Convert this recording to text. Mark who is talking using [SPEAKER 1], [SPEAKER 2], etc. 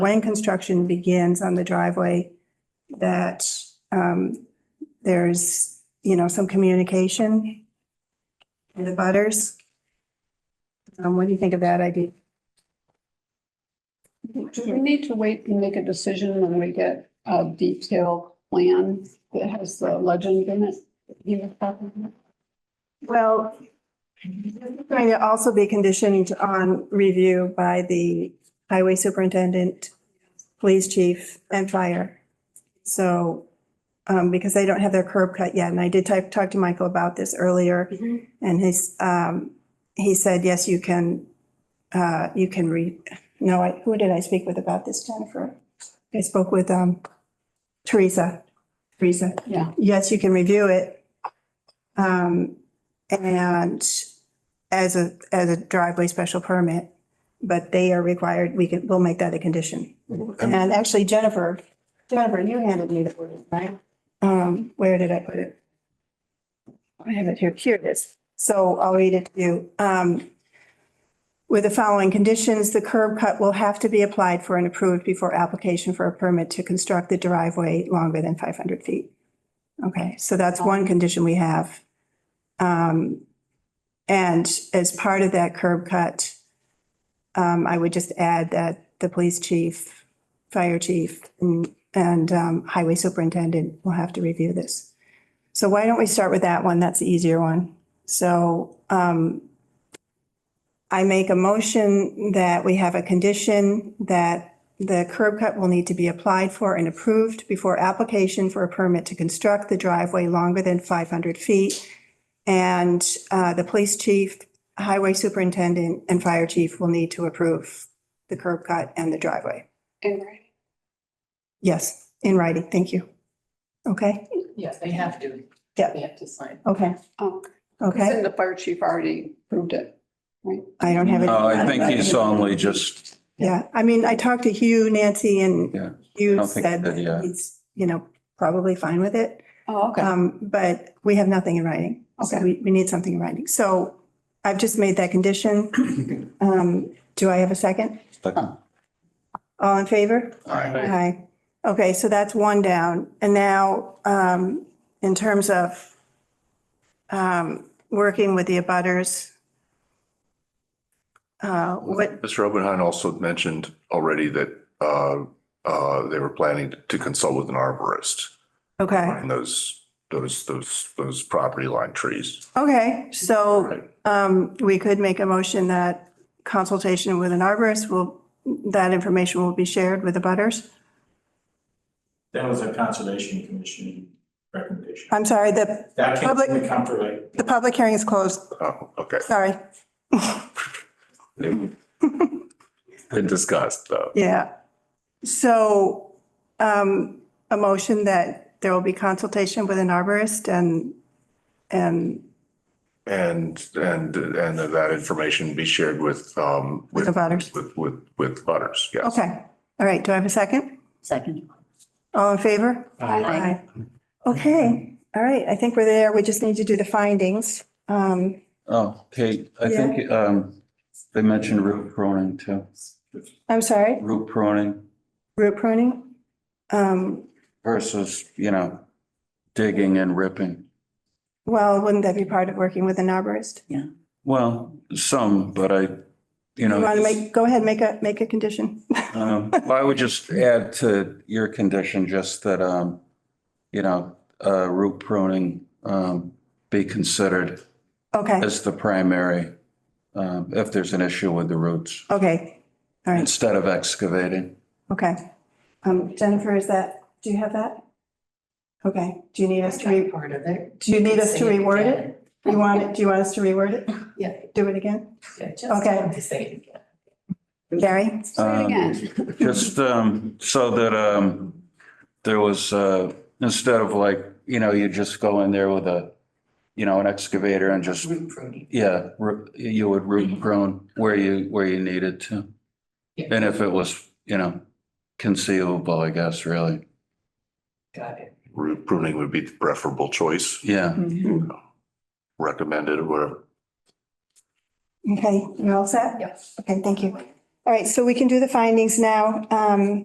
[SPEAKER 1] when construction begins on the driveway, that um, there's, you know, some communication in the butters. Um, What do you think of that idea?
[SPEAKER 2] Do we need to wait and make a decision when we get a detailed plan that has the legend in it? You have a copy
[SPEAKER 1] Mm-hmm.
[SPEAKER 2] of it?
[SPEAKER 1] Well, it's going to also be conditioned on review by the highway superintendent, police chief, and fire. So, um, because they don't have their curb cut yet, and I did type, talk to Michael about this earlier, and his, um, he said, yes, you can, uh, you can re, no, I, who did I speak with about this, Jennifer? I spoke with, um, Teresa, Teresa
[SPEAKER 2] Yeah,
[SPEAKER 1] yes, you can review it. Um, and as a, as a driveway special permit, but they are required, we can, we'll make that a condition.
[SPEAKER 3] I'm-
[SPEAKER 1] And actually Jennifer, Jennifer, you handed me the word, right? Um, where did I put it? I have it here. Here it is. So I'll read it to you. Um, with the following conditions, the curb cut will have to be applied for and approved before application for a permit to construct the driveway longer than five hundred feet. Okay, so that's one condition we have. Um, and as part of that curb cut, um, I would just add that the police chief, fire chief, and, and, um, highway superintendent will have to review this. So why don't we start with that one? That's the easier one. So, um, I make a motion that we have a condition that the curb cut will need to be applied for and approved before application for a permit to construct the driveway longer than 500 feet. And uh, the police chief, highway superintendent, and fire chief will need to approve the curb cut and the driveway.
[SPEAKER 2] in writing.
[SPEAKER 1] Yes, in writing, thank you. Okay,
[SPEAKER 4] Yes, they have to.
[SPEAKER 1] Yeah.
[SPEAKER 4] They have to sign.
[SPEAKER 1] okay,
[SPEAKER 2] Oh,
[SPEAKER 1] okay.
[SPEAKER 2] And the fire chief already proved it, right?
[SPEAKER 1] I don't have it.
[SPEAKER 3] Oh, I think he's only just,
[SPEAKER 1] Yeah, I mean, I talked to Hugh, Nancy,
[SPEAKER 3] Yeah,
[SPEAKER 1] and Hugh
[SPEAKER 3] don't think
[SPEAKER 1] said
[SPEAKER 3] that, yeah.
[SPEAKER 1] he's, you know, probably fine with it.
[SPEAKER 2] Oh, okay.
[SPEAKER 1] Um, but we have nothing in writing. So
[SPEAKER 2] Okay.
[SPEAKER 1] we, we need something in writing. So I've just made that condition. Um, do I have a second?
[SPEAKER 3] all
[SPEAKER 1] All in favor?
[SPEAKER 3] right,
[SPEAKER 1] Aye. Okay, so that's one down. And now, um, in terms of um, working with the abutters, uh, what,
[SPEAKER 5] Mr. Oppenheim also mentioned already that uh, uh, they were planning to consult with an arborist
[SPEAKER 1] okay,
[SPEAKER 5] on those, those, those, those property line trees.
[SPEAKER 1] okay. So
[SPEAKER 5] Right.
[SPEAKER 1] Um, we could make a motion that consultation with an arborist will, that information will be shared with the butters.
[SPEAKER 6] That was a conservation commission recommendation.
[SPEAKER 1] I'm sorry, the,
[SPEAKER 6] That came
[SPEAKER 1] Uh, public-
[SPEAKER 6] from the Comfort,
[SPEAKER 1] the public hearing is closed.
[SPEAKER 5] Oh, okay.
[SPEAKER 1] Sorry.
[SPEAKER 5] Been discussed, though.
[SPEAKER 1] Yeah. So, um, a motion that there will be consultation with an arborist and, and
[SPEAKER 5] And, and, and that that information be shared with, um,
[SPEAKER 1] with
[SPEAKER 5] with,
[SPEAKER 1] the butters.
[SPEAKER 5] with, with, with butters, yes.
[SPEAKER 1] Okay. All right. Do I have a second?
[SPEAKER 4] Second.
[SPEAKER 1] All in favor?
[SPEAKER 6] Lake.
[SPEAKER 1] Aye. Okay. All right. I think we're there. We just need to do the findings. Um,
[SPEAKER 3] Oh, Kate, I think um, they mentioned root pruning too.
[SPEAKER 1] I'm sorry,
[SPEAKER 3] Root pruning
[SPEAKER 1] root pruning. Um,
[SPEAKER 3] versus, you know, digging and ripping.
[SPEAKER 1] Well, wouldn't that be part of working with an arborist?
[SPEAKER 3] Well, some, but I, you
[SPEAKER 1] You
[SPEAKER 3] know.
[SPEAKER 1] want to make, go ahead, make a, make a condition.
[SPEAKER 3] Um, well, I would just add to your condition, just that, um, you know, uh, root pruning, um, be considered
[SPEAKER 1] Okay,
[SPEAKER 3] as the primary, um, if there's an issue with the roots,
[SPEAKER 1] okay, all right,
[SPEAKER 3] instead of excavating.
[SPEAKER 1] okay. Um, Jennifer, is that, do you have that? Okay, do you need us to, re-
[SPEAKER 4] Part of it.
[SPEAKER 1] do you need us to
[SPEAKER 4] Say it
[SPEAKER 1] reword
[SPEAKER 4] again.
[SPEAKER 1] it? You want it, do you want us to reword it?
[SPEAKER 4] Yeah.
[SPEAKER 1] Do it again?
[SPEAKER 4] Yeah, just
[SPEAKER 1] Okay.
[SPEAKER 4] have to Say it again.
[SPEAKER 1] Gary?
[SPEAKER 2] Say it again.
[SPEAKER 3] Just, um, so that, um, there was, uh, instead of like, you know, you just go in there with a, you know, an excavator and just,
[SPEAKER 4] Root pruning.
[SPEAKER 3] yeah, ru- you would root prune where you, where you needed to.
[SPEAKER 4] Yeah.
[SPEAKER 3] And if it was, you know, conceivable, I guess, really.
[SPEAKER 4] Got it.
[SPEAKER 5] Root pruning would be the preferable choice,
[SPEAKER 3] Yeah.
[SPEAKER 1] Mm-hmm.
[SPEAKER 5] recommended or whatever.
[SPEAKER 1] Okay, you're all set?
[SPEAKER 4] Yes.
[SPEAKER 1] Okay, thank you. All right, so we can do the findings now. Um,